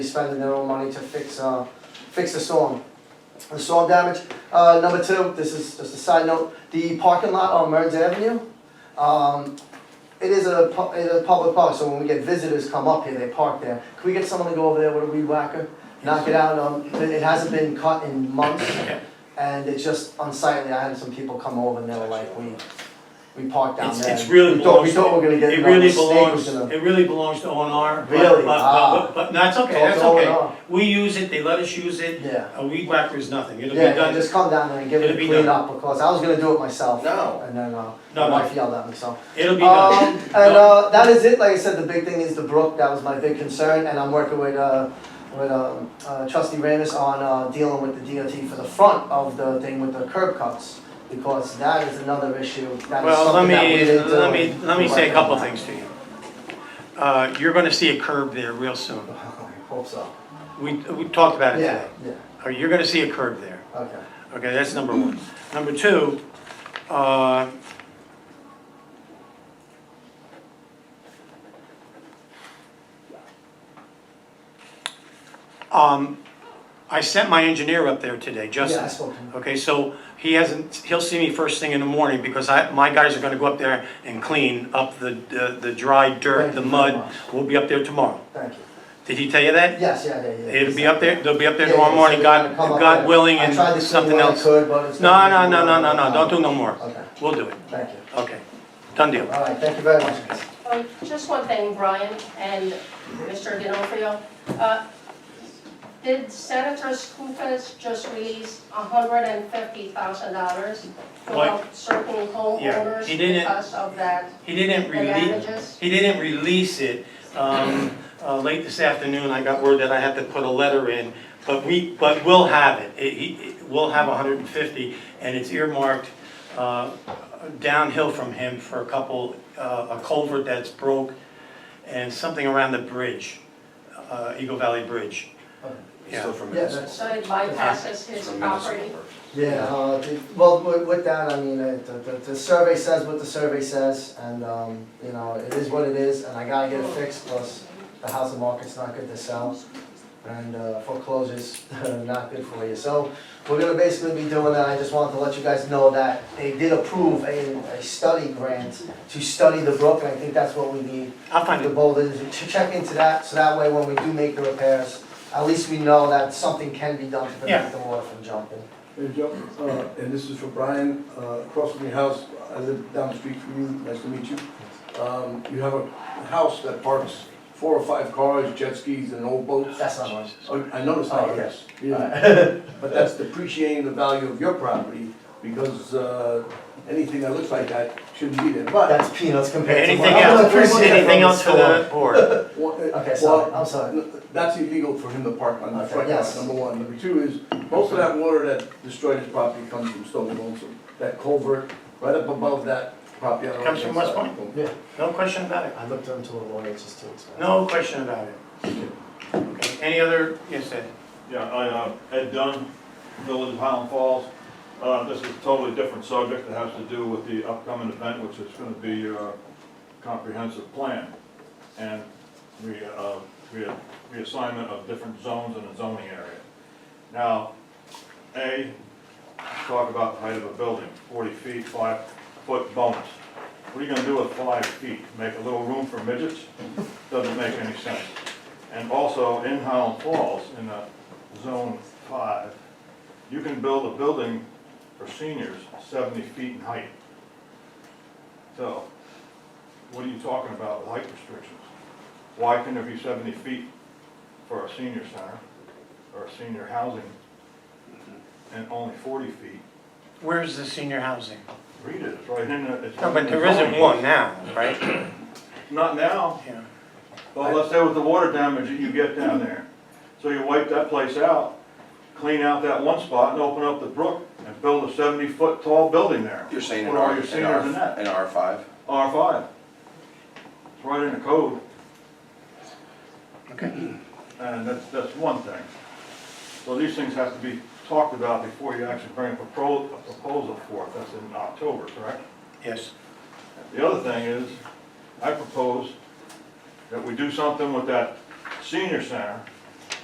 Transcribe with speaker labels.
Speaker 1: spending their own money to fix, uh, fix the storm, the storm damage. Uh, number two, this is just a side note, the parking lot on Merns Avenue, um, it is a, pu- it is a public park, so when we get visitors come up here, they park there. Can we get someone to go over there with a weed whacker, knock it out, um, it it hasn't been cut in months, and it's just unsightly, I had some people come over and they were like, we, we parked down
Speaker 2: It's,
Speaker 1: there.
Speaker 2: it's really
Speaker 1: We thought, we
Speaker 2: belongs,
Speaker 1: thought we were gonna get,
Speaker 2: it
Speaker 1: another
Speaker 2: really
Speaker 1: snake was
Speaker 2: belongs,
Speaker 1: gonna-
Speaker 2: it really belongs to O and R.
Speaker 1: Really? Ah.
Speaker 2: But, but, but, but that's okay, that's
Speaker 1: It's all
Speaker 2: okay.
Speaker 1: gone.
Speaker 2: We use it, they let us use it,
Speaker 1: Yeah.
Speaker 2: a weed whacker is nothing, it'll be
Speaker 1: Yeah, and
Speaker 2: done.
Speaker 1: just come down there and give it
Speaker 2: It'll
Speaker 1: a
Speaker 2: be
Speaker 1: clean
Speaker 2: done.
Speaker 1: up because I was gonna do it myself.
Speaker 3: No.
Speaker 1: And then, uh,
Speaker 2: No,
Speaker 1: my
Speaker 2: no.
Speaker 1: wife yelled at me, so.
Speaker 2: It'll be
Speaker 1: Um,
Speaker 2: done.
Speaker 1: and, uh, that is it, like I said, the big thing is the brook, that was my big concern, and I'm working with, uh, with, um, uh, trustee Ramus on, uh, dealing with the DOT for the front of the thing with the curb cuts. Because that is another issue, that is
Speaker 2: Well, let
Speaker 1: something that we
Speaker 2: me,
Speaker 1: didn't uh, do.
Speaker 2: let me, let me say a couple
Speaker 1: Right.
Speaker 2: things to you. Uh, you're gonna see a curb there real soon.
Speaker 1: I Hope so.
Speaker 2: We, we talked about it
Speaker 1: Yeah,
Speaker 2: today.
Speaker 1: yeah,
Speaker 2: Uh, You're gonna see a curb there.
Speaker 1: okay.
Speaker 2: Okay, that's number one. Number two, uh, um, I sent my engineer up there today,
Speaker 1: Yeah, I
Speaker 2: Justin.
Speaker 1: spoke to him.
Speaker 2: Okay, so he hasn't, he'll see me first thing in the morning because I, my guys are gonna go up there and clean up the, the, the dry
Speaker 1: Thank
Speaker 2: dirt, the
Speaker 1: you very
Speaker 2: mud.
Speaker 1: much.
Speaker 2: We'll be up there tomorrow.
Speaker 1: Thank you.
Speaker 2: Did he tell you that?
Speaker 1: Yes, yeah, yeah, yeah.
Speaker 2: It'll be up there, they'll be up there
Speaker 1: Yeah,
Speaker 2: tomorrow
Speaker 1: yeah,
Speaker 2: morning,
Speaker 1: so
Speaker 2: God,
Speaker 1: they're gonna come up
Speaker 2: God
Speaker 1: there.
Speaker 2: willing
Speaker 1: I
Speaker 2: and
Speaker 1: tried to clean
Speaker 2: something
Speaker 1: what I
Speaker 2: else.
Speaker 1: could, but it's
Speaker 2: No,
Speaker 1: gonna be
Speaker 2: no, no,
Speaker 1: more
Speaker 2: no, no, no,
Speaker 1: than
Speaker 2: don't do
Speaker 1: that.
Speaker 2: no more.
Speaker 1: Okay,
Speaker 2: We'll do it.
Speaker 1: thank you.
Speaker 2: Okay, done deal.
Speaker 1: All right, thank you very much.
Speaker 4: Um, Just one thing, Brian and Mr. D'Onofrio. Uh, Did Senator Skoufis just release $150,000 for
Speaker 2: What?
Speaker 4: certain
Speaker 2: Yeah,
Speaker 4: homeowners
Speaker 2: he didn't-
Speaker 4: because of that,
Speaker 2: He didn't
Speaker 4: the
Speaker 2: release,
Speaker 4: damages?
Speaker 2: he didn't release it, um, uh, late this afternoon, I got word that I had to put a letter in, but we, but we'll have it, it, he- it- we'll have hundred and fifty, and it's earmarked, uh, downhill from him for a couple, uh, a culvert that's broke, and something around the bridge, uh, Eagle Valley Bridge. Yeah.
Speaker 3: Still from
Speaker 1: Yeah,
Speaker 3: municipal.
Speaker 1: that's-
Speaker 4: So it bypasses his
Speaker 3: From
Speaker 4: property?
Speaker 3: municipal work.
Speaker 1: Yeah, uh, the- well, with, with that, I mean, uh, the, the, the survey says what the survey says, and, um, you know, it is what it is, and I gotta get it fixed, plus the housing market's not good to sell, and, uh, foreclosure's not good for you, so we're gonna basically be doing that, I just wanted to let you guys know that they did approve a, a study grant to study the brook, and I think that's what we need
Speaker 2: I'll find
Speaker 1: the
Speaker 2: it,
Speaker 1: boulders, to check into that, so that way when we do make the repairs, at least we know that something can be done to
Speaker 2: Yeah.
Speaker 1: prevent the water from jumping.
Speaker 5: Hey Joe, uh, and this is for Brian, uh, across from your house, I live down the street from you, nice to meet you. Um, You have a house that parks four or five cars, jet skis and old boats.
Speaker 1: That's not mine.
Speaker 5: Oh, I noticed that,
Speaker 1: Oh,
Speaker 5: yes. But that's depreciating the value of your property because uh, anything that looks like that shouldn't be there. But,
Speaker 1: That's peanuts compared to what.
Speaker 2: anything
Speaker 1: I'm gonna
Speaker 2: else,
Speaker 1: appreciate it
Speaker 2: anything
Speaker 1: from
Speaker 2: else for the board?
Speaker 5: well, uh,
Speaker 1: Okay, sorry,
Speaker 5: well,
Speaker 1: I'm sorry.
Speaker 5: N- That's illegal for him to park on the
Speaker 1: Okay,
Speaker 5: front
Speaker 1: yes.
Speaker 5: yard, number one. Number two is, most of that water that destroyed his property comes from Stone Lonesome. That culvert right up above that property. on the
Speaker 2: Comes from
Speaker 5: right-hand
Speaker 2: West
Speaker 5: side.
Speaker 2: No question about it.
Speaker 1: I looked into a lawyer just to explain.
Speaker 2: No question about it. Okay, any other, yes, Ed?
Speaker 6: Yeah, I, uh, Ed Dunn, Village of Highland Falls. Uh, This is a totally different subject that has to do with the upcoming event, which is going to be a comprehensive plan. And re- uh, re- reassignment of different zones in the zoning area. Now, A, talk about the height of a building, 40 feet, 5-foot bonus. What are you going to do with 5 feet? Make a little room for midgets? Doesn't make any sense. And also, in Highland Falls, in a zone five, you can build a building for seniors seventy feet in height. So, what are you talking about with height restrictions? Why can there be seventy feet for a senior center or a senior housing and only forty feet?
Speaker 2: Where's the senior housing?
Speaker 6: Read it, it's right in the, it's.
Speaker 2: No, but there
Speaker 6: in the
Speaker 2: isn't
Speaker 6: zoning.
Speaker 2: one now, right?
Speaker 6: Not now.
Speaker 2: Yeah.
Speaker 6: Well, let's say with the water damage that you get down there. So you wipe that place out, clean out that one spot and open up the brook and build a seventy-foot tall building there.
Speaker 3: You're saying in
Speaker 6: What are
Speaker 3: R,
Speaker 6: your
Speaker 3: in
Speaker 6: seniors in
Speaker 3: R,
Speaker 6: that?
Speaker 3: in R five?
Speaker 6: R five. It's right in the code.
Speaker 2: Okay.
Speaker 6: And that's, that's one thing. So these things have to be talked about before you actually bring a proposal, a proposal forth. That's in October, correct?
Speaker 2: Yes.
Speaker 6: The other thing is, I propose that we do something with that senior center